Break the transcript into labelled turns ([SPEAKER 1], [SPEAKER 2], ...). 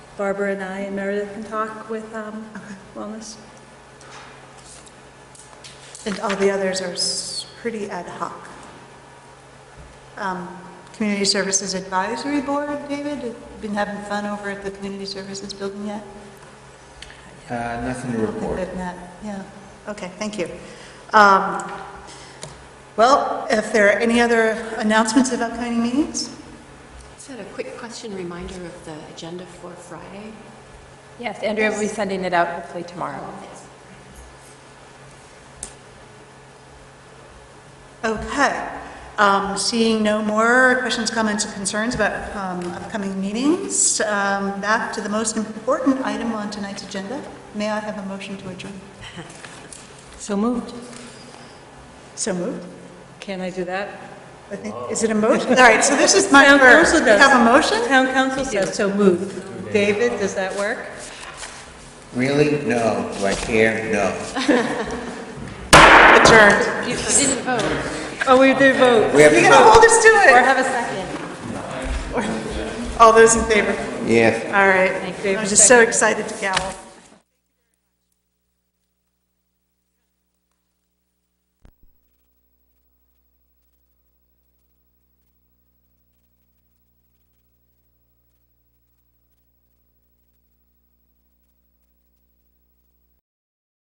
[SPEAKER 1] Barbara and I and Meredith can talk with um, Wellness.
[SPEAKER 2] And all the others are s- pretty ad hoc. Um, Community Services Advisory Board, David, been having fun over at the Community Services Building yet?
[SPEAKER 3] Uh, Nothing to report.
[SPEAKER 2] Good, Matt, yeah, okay, thank you. Um, Well, if there are any other announcements of upcoming meetings?
[SPEAKER 4] Just had a quick question reminder of the agenda for Friday.
[SPEAKER 5] Yes, Andrea will be sending it out hopefully tomorrow.
[SPEAKER 2] Okay. Um, Seeing no more questions, comments, or concerns about um, upcoming meetings, um, back to the most important item on tonight's agenda. May I have a motion to adjourn?
[SPEAKER 5] So moved.
[SPEAKER 2] So moved.
[SPEAKER 1] Can I do that?
[SPEAKER 2] I think, is it a motion? All right, so this is my
[SPEAKER 1] Town
[SPEAKER 2] first.
[SPEAKER 1] council
[SPEAKER 2] We
[SPEAKER 1] does.
[SPEAKER 2] have a motion?
[SPEAKER 1] Town council says so moved. David, does that work?
[SPEAKER 3] Really? No. Do I care? No.
[SPEAKER 2] Adjourned.
[SPEAKER 4] You didn't vote.
[SPEAKER 1] Oh, we did vote.
[SPEAKER 3] We have
[SPEAKER 2] You're
[SPEAKER 3] to
[SPEAKER 2] going to
[SPEAKER 3] vote.
[SPEAKER 2] hold us to
[SPEAKER 1] Or
[SPEAKER 2] it.
[SPEAKER 1] have a second.
[SPEAKER 2] All those in favor?
[SPEAKER 3] Yes.
[SPEAKER 2] All right.
[SPEAKER 1] you.
[SPEAKER 2] I'm just so excited to gavel.